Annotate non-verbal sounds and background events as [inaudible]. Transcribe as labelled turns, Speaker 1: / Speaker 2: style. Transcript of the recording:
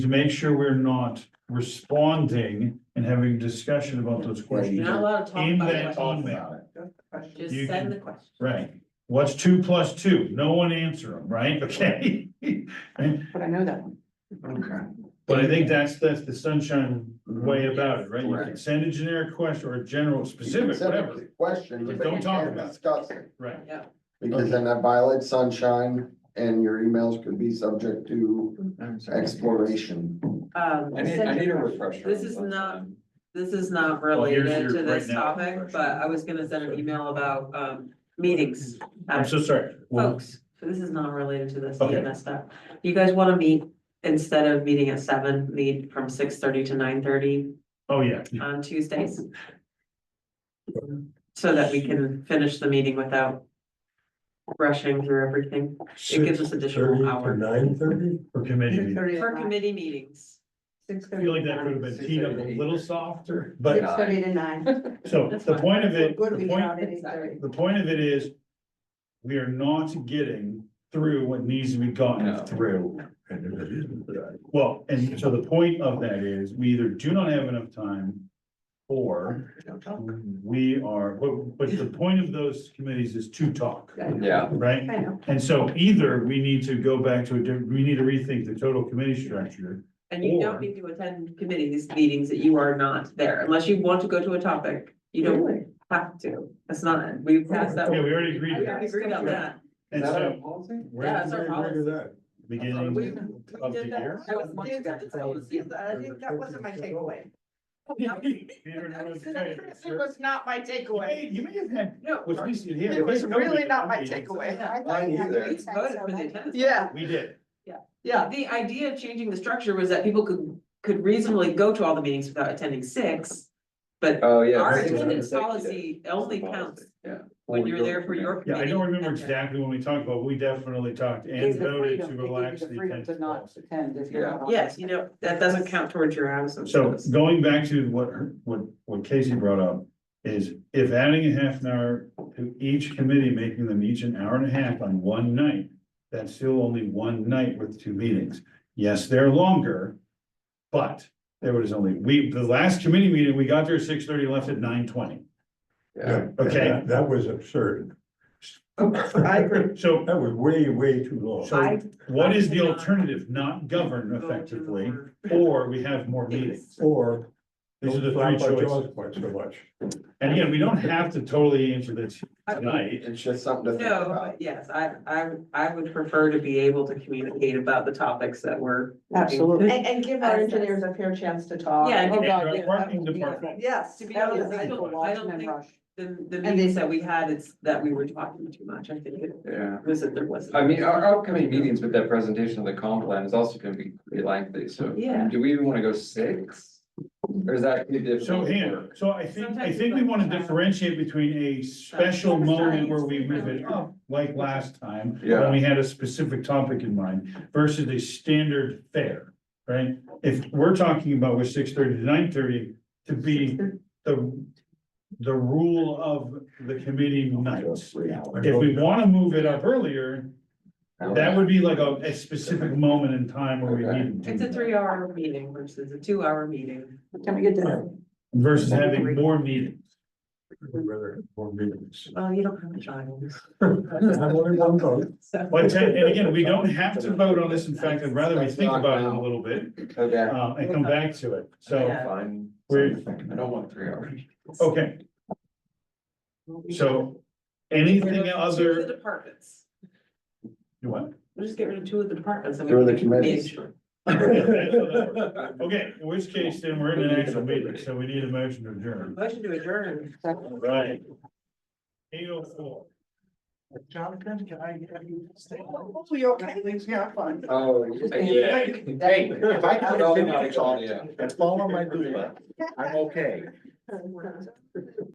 Speaker 1: to make sure we're not responding and having discussion about those
Speaker 2: You're
Speaker 1: questions.
Speaker 2: not allowed to talk
Speaker 1: In
Speaker 2: about
Speaker 1: that
Speaker 2: it.
Speaker 1: email.
Speaker 2: Just
Speaker 1: You can-
Speaker 2: send the question.
Speaker 1: Right, what's two plus two? No one answer them, right? [laughs] Okay?
Speaker 3: But I know that one.
Speaker 4: Okay.
Speaker 1: But I think that's, that's the sunshine way about it, right? You can
Speaker 4: Right.
Speaker 1: send a generic question or a general specific, whatever,
Speaker 4: Question.
Speaker 1: But don't talk about it.
Speaker 4: Discuss it,
Speaker 1: right?
Speaker 4: because then that violates sunshine and your emails could be subject to exploration.
Speaker 2: Um,
Speaker 5: I need, I need a refresher.
Speaker 2: This is not- this is not
Speaker 1: Well, here's
Speaker 2: related
Speaker 1: your
Speaker 2: to this
Speaker 1: right now
Speaker 2: topic,
Speaker 1: question.
Speaker 2: but I was gonna send an email about, um, meetings. Um,
Speaker 1: I'm so sorry. Well,
Speaker 2: Folks, this is not related to this
Speaker 1: Okay.
Speaker 2: EMS stuff. You guys wanna meet, instead of meeting at seven, meet from six thirty to nine thirty
Speaker 1: Oh, yeah,
Speaker 2: on Tuesdays? So that we can finish the meeting without rushing through everything. It gives us additional hour
Speaker 6: Nine thirty?
Speaker 1: for committee meeting.
Speaker 2: for committee meetings.
Speaker 3: Six
Speaker 1: I
Speaker 3: thirty.
Speaker 1: feel like that could have been teed up a little softer, but
Speaker 3: Six thirty
Speaker 1: [laughs]
Speaker 3: to nine.
Speaker 1: so the point of it,
Speaker 3: Good,
Speaker 1: the
Speaker 3: we get
Speaker 1: point,
Speaker 3: out at eight thirty.
Speaker 1: the point of it is. We are not getting through what needs to be
Speaker 5: No.
Speaker 1: gotten through. Well, and so the point of that is we either do not have enough time. Or we are, but, but the point of those committees is to talk,
Speaker 5: Yeah,
Speaker 1: right?
Speaker 3: I know.
Speaker 1: And so either we need to go back to a, different- we need to rethink the total committee structure.
Speaker 2: And you
Speaker 1: Or-
Speaker 2: don't need to attend committees meetings that you are not there unless you want to go to a topic. You don't
Speaker 3: Really?
Speaker 2: have to. That's not, we passed
Speaker 1: Yeah,
Speaker 2: that.
Speaker 1: we already agreed to
Speaker 2: We
Speaker 1: that.
Speaker 2: agreed on that.
Speaker 1: And so,
Speaker 2: Yeah, that's our policy.
Speaker 1: beginning of the
Speaker 2: did that.
Speaker 1: year.
Speaker 2: I was doing that this whole season.
Speaker 3: I didn't- That wasn't
Speaker 1: [laughs]
Speaker 3: my takeaway.
Speaker 1: Peter knows the case.
Speaker 3: It was not my
Speaker 1: You
Speaker 3: takeaway.
Speaker 1: may- you may have had,
Speaker 2: No.
Speaker 1: was recent here.
Speaker 3: It was
Speaker 1: Wait, no, we
Speaker 3: really
Speaker 1: did.
Speaker 3: not my
Speaker 1: We did.
Speaker 3: takeaway.
Speaker 2: I
Speaker 4: thought you had to
Speaker 2: We voted for the attendance.
Speaker 3: Yeah,
Speaker 1: We did.
Speaker 3: yeah.
Speaker 2: The idea of changing the structure was that people could, could reasonably go to all the meetings without attending six. But
Speaker 5: oh, yeah.
Speaker 2: our
Speaker 5: this is
Speaker 2: attendance
Speaker 5: executive
Speaker 2: policy only
Speaker 5: policy,
Speaker 2: counts
Speaker 5: Yeah.
Speaker 2: when you're there for your
Speaker 1: Yeah,
Speaker 2: committee.
Speaker 1: I don't remember
Speaker 2: Okay.
Speaker 1: exactly when we talked, but we definitely talked and
Speaker 3: Gives the
Speaker 1: voted
Speaker 3: freedom-
Speaker 1: to
Speaker 3: it gives you
Speaker 1: relax the
Speaker 3: freedom to
Speaker 1: attendance
Speaker 3: not
Speaker 1: policy.
Speaker 3: attend if you're
Speaker 5: Yeah.
Speaker 3: not on.
Speaker 2: Yes, you know, that doesn't count towards your hours. of
Speaker 1: So
Speaker 2: service.
Speaker 1: going back to what, her- what, what Casey brought up, is if adding a half an hour to each committee, making them each an hour and a half on one night, that's still only one night with two meetings. Yes, they're longer, but there was only, we, the last committee meeting, we got there at six thirty, left at nine twenty.
Speaker 5: Yeah,
Speaker 1: Okay.
Speaker 6: That- That was absurd.
Speaker 3: I agree.
Speaker 1: So
Speaker 6: That was way, way too long.
Speaker 1: So what is the alternative? Not govern
Speaker 2: Go to the
Speaker 1: effectively,
Speaker 2: board.
Speaker 1: or we have more meetings?
Speaker 6: Or.
Speaker 1: These are the
Speaker 6: don't flap
Speaker 1: three
Speaker 6: our
Speaker 1: choices.
Speaker 6: jaws Quite so much.
Speaker 1: And again, we don't have to totally answer this
Speaker 2: I-
Speaker 1: tonight.
Speaker 4: It's just something to think
Speaker 2: No,
Speaker 4: about.
Speaker 2: but yes, I, I, I would prefer to be able to communicate about the topics that were.
Speaker 3: Absolutely. And, and give our
Speaker 2: Access.
Speaker 3: engineers a fair chance to talk.
Speaker 2: Yeah, and
Speaker 3: Oh,
Speaker 2: give-
Speaker 3: God,
Speaker 1: Our
Speaker 3: yeah,
Speaker 1: parking
Speaker 3: that would be-
Speaker 1: department.
Speaker 3: Yes.
Speaker 2: To be
Speaker 3: that
Speaker 2: honest,
Speaker 3: was
Speaker 2: I
Speaker 3: a
Speaker 2: don't- I
Speaker 3: Watchmen
Speaker 2: don't think-
Speaker 3: rush.
Speaker 2: The, the
Speaker 3: they-
Speaker 2: meetings that we had, it's that we were talking too much, I think, it
Speaker 5: yeah.
Speaker 2: was that there wasn't.
Speaker 5: I mean, our upcoming meetings with that presentation of the comp plan is also gonna be pretty lengthy, so.
Speaker 2: Yeah.
Speaker 5: Do we even wanna go six? Or is that? too
Speaker 1: So
Speaker 5: difficult?
Speaker 1: here, so I think, I
Speaker 2: Sometimes
Speaker 1: think we
Speaker 2: it's
Speaker 1: want
Speaker 2: like-
Speaker 1: to differentiate between a special moment where we revisit,
Speaker 2: Oh.
Speaker 1: like last time.
Speaker 5: Yeah.
Speaker 1: When we had a specific topic in mind versus a standard fare, right? If we're talking about with six thirty to nine thirty to be the, the rule of the committee nights. If we want to move it up earlier, that would be like a, a specific moment in time where we need. to do
Speaker 2: It's a
Speaker 1: that.
Speaker 2: three hour meeting versus a two hour meeting.
Speaker 3: What time we get to?
Speaker 1: Versus having more meetings.
Speaker 6: I'd Rather, more meetings.
Speaker 2: Well, you don't have a child.
Speaker 4: [laughs]
Speaker 6: I'm only one vote.
Speaker 2: So,
Speaker 1: But ten- and again, we don't have to vote on this. In fact, I'd rather we think about it a little bit,
Speaker 5: Okay.
Speaker 1: uh, and come back to it. So,
Speaker 2: Yeah.
Speaker 5: Fine.
Speaker 1: We're-
Speaker 5: I don't want three hours.
Speaker 1: okay, so anything
Speaker 2: Two of The
Speaker 1: other,
Speaker 2: departments,
Speaker 1: you what?
Speaker 2: we'll just get rid of two of the departments. and we
Speaker 4: Two of the
Speaker 2: can
Speaker 4: committees.
Speaker 2: manage
Speaker 1: [laughs]
Speaker 2: it.
Speaker 1: Okay, in which case then we're in an actual meeting, so we need a motion to adjourn.
Speaker 2: Motion to adjourn.
Speaker 1: All Right. Eight oh four.
Speaker 6: Jonathan, can I have you?
Speaker 3: Hopefully, okay. Yeah, fun.
Speaker 5: Oh, yeah. Hey, if I could all my audio.
Speaker 6: That's all I'm doing. I'm okay.